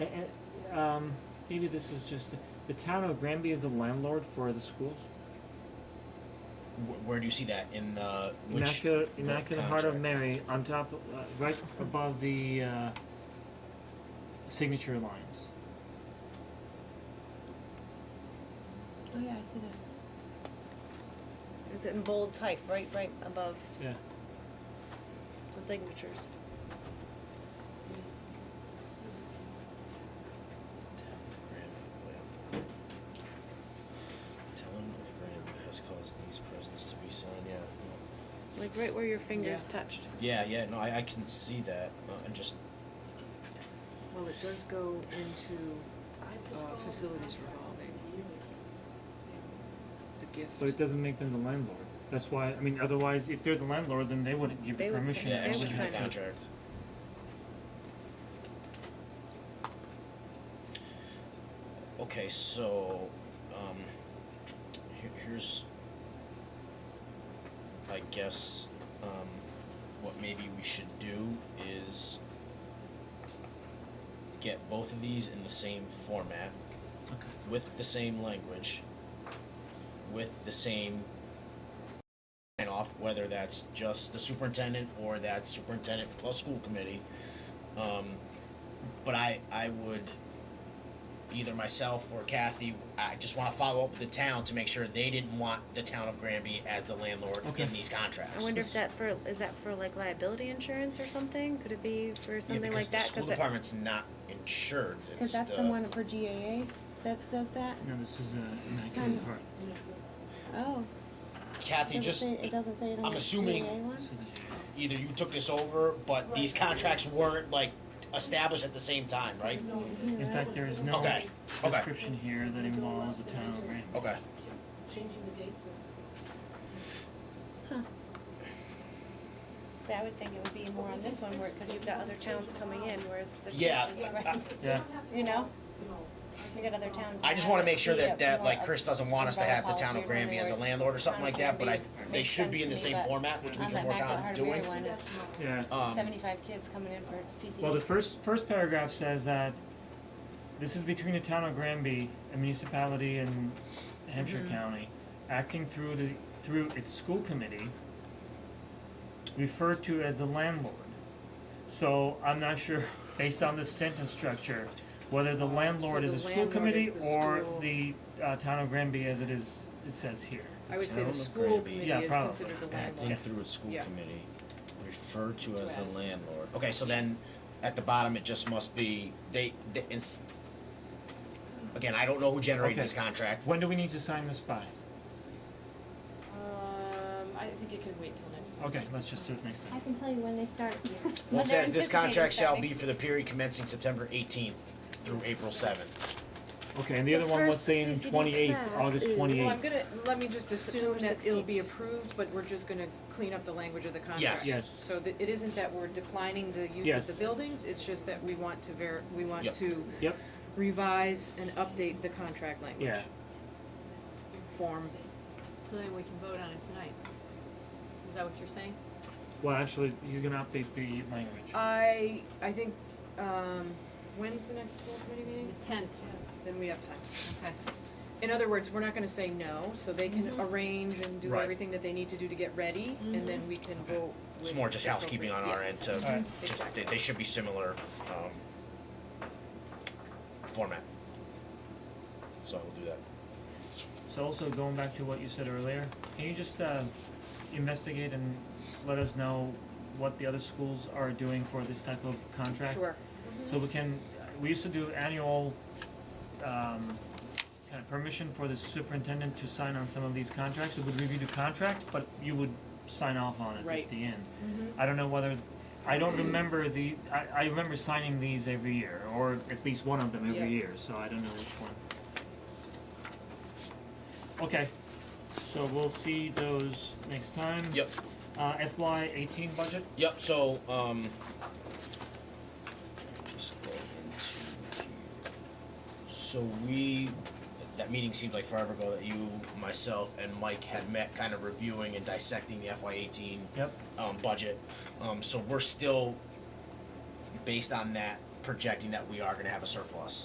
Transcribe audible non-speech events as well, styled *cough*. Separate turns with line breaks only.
um, Maybe this is just the town of Granby is the landlord for the schools.
Wh- where do you see that in uh, which
Immaculate,
the
Immaculate Heart of
contract?
Mary on top, of- uh, right above the uh, signature lines.
Oh yeah, I see that.
It's in bold type, right, right above
Yeah.
the signatures.
Granby, yeah. Town of Granby has caused these presents to be signed. Yeah. no.
Like right where your fingers
Yeah.
touched.
Yeah, yeah. No, I, I can see that. Uh, and just
Well, it does go into uh, facilities revolving, the gift.
But it doesn't make them the landlord. That's why, I mean, otherwise, if they're the landlord, then they wouldn't give
They
you
would
permission.
yeah,
They would
execute the
sign it.
contract. Okay, so um, here, here's, I guess, um, what maybe we should do is get both of these in the same format
Okay.
with the same language, with the same sign off, whether that's just the superintendent or that's superintendent plus school committee. Um, but I, I would, either myself or Kathy, I just wanna follow up with the town to make sure they didn't want the town of Granby as the landlord
Okay.
in these contracts.
I wonder if that for, is that for like liability insurance or something? Could it be for something
Yeah,
like
because
that?
the school uh, department's not insured,
Cause
it's
that's the
the-
one for GAA that says that?
No, this is a Immaculate
Time.
Heart.
Oh.
Kathy,
doesn't
just,
say- It doesn't say it on
I'm
the
assuming-
GAA one?
This is a-
either you took this over, but these contracts weren't like established at the same time, right?
In fact, there is no
Okay, okay,
description here that involves the town of Granby.
okay.
Changing the dates of.
See, I would think it would be more on this one where, cause you've got other towns coming in, whereas the.
Yeah,
chances are-
I,
Yeah.
You know? We got other towns.
I just wanna make sure that, that, like, Chris doesn't want us to have the town of
Umbrella
Granby as a
policy or
landlord or something like that, but I,
something, or
they should be in the
makes
same
sense to me,
format, which we
On
can
that
work
back of the
on
Heart of Mary
doing.
one, it's
Yeah.
Um,
seventy-five kids coming in for CCD.
Well, the first, first paragraph says that this is between the town of Granby, a municipality in Hampshire
Mm-hmm.
County, acting through the, through its school committee, referred to as the landlord. So I'm not sure, *laughs* based on this sentence structure, whether the landlord
So
is
the
a school
landlord
committee
is the
or
school.
the, uh, town of Granby as it is, it says here.
I would say
Town
the
of
school
Granby.
committee
Yeah,
is
probably.
considered a
Acting
landlord.
through its school
Yeah.
committee, referred to as the
as.
landlord. Okay, so then, at the bottom, it just must be, they, they, it's, again, I don't know who generated
Okay.
this contract.
When do we need to sign this by?
Um, I think it can wait till next time.
Okay, let's just do it next
I
time.
can tell you when they start.
Well,
*laughs* When
it
they're
says this
anticipating
contract shall
starting.
be for the period commencing September eighteenth through April seventh.
Okay, and the
The
other one was
first
saying
CCD
twenty-eighth,
class
August
is- Well, I'm
twenty-eighth.
Well, I'm gonna, let me just assume
September
that it'll
16th.
be approved, but we're just gonna clean up the language of the contract.
Yes.
Yes.
So that, it isn't that we're declining the use
Yes.
of the buildings, it's just that we want to ver, we want
Yep.
to
Yep,
revise and update the contract language.
yeah.
Form.
So then we can vote on it tonight. Is that what you're saying?
Well, actually, he's gonna update the language.
Uh, I, I think, um, when's the next school committee
The
meeting?
tenth,
Then we have time.
okay.
In other words, we're not gonna say no, so they can arrange and do
Right.
everything that they need to do to get ready, and then we can
Okay.
vote with.
It's more just housekeeping on our
Yeah.
end to,
Alright.
just, they,
Exactly.
they should be similar, um, format. So we'll do that.
So also going back to what you said earlier, can you just uh investigate and let us know what the other schools are doing for this type of contract?
Sure.
So we can, we used to do annual um kind of permission for the superintendent to sign on some of these contracts, we would review the contract, but you would sign off on it at
Right. Mm-hmm.
the end. I don't know whether, I don't remember the, I I remember signing these every year, or at least one of them
Yeah.
every year, so I don't know which one. Okay, so we'll see those next time.
Yep,
Uh FY eighteen budget,
yep, so, um, just go into here. So we, that meeting seems like forever ago that you, myself, and Mike had met, kind of reviewing and dissecting the FY eighteen
yep,
um, budget. Um, so we're still, based on that, projecting that we are gonna have a surplus.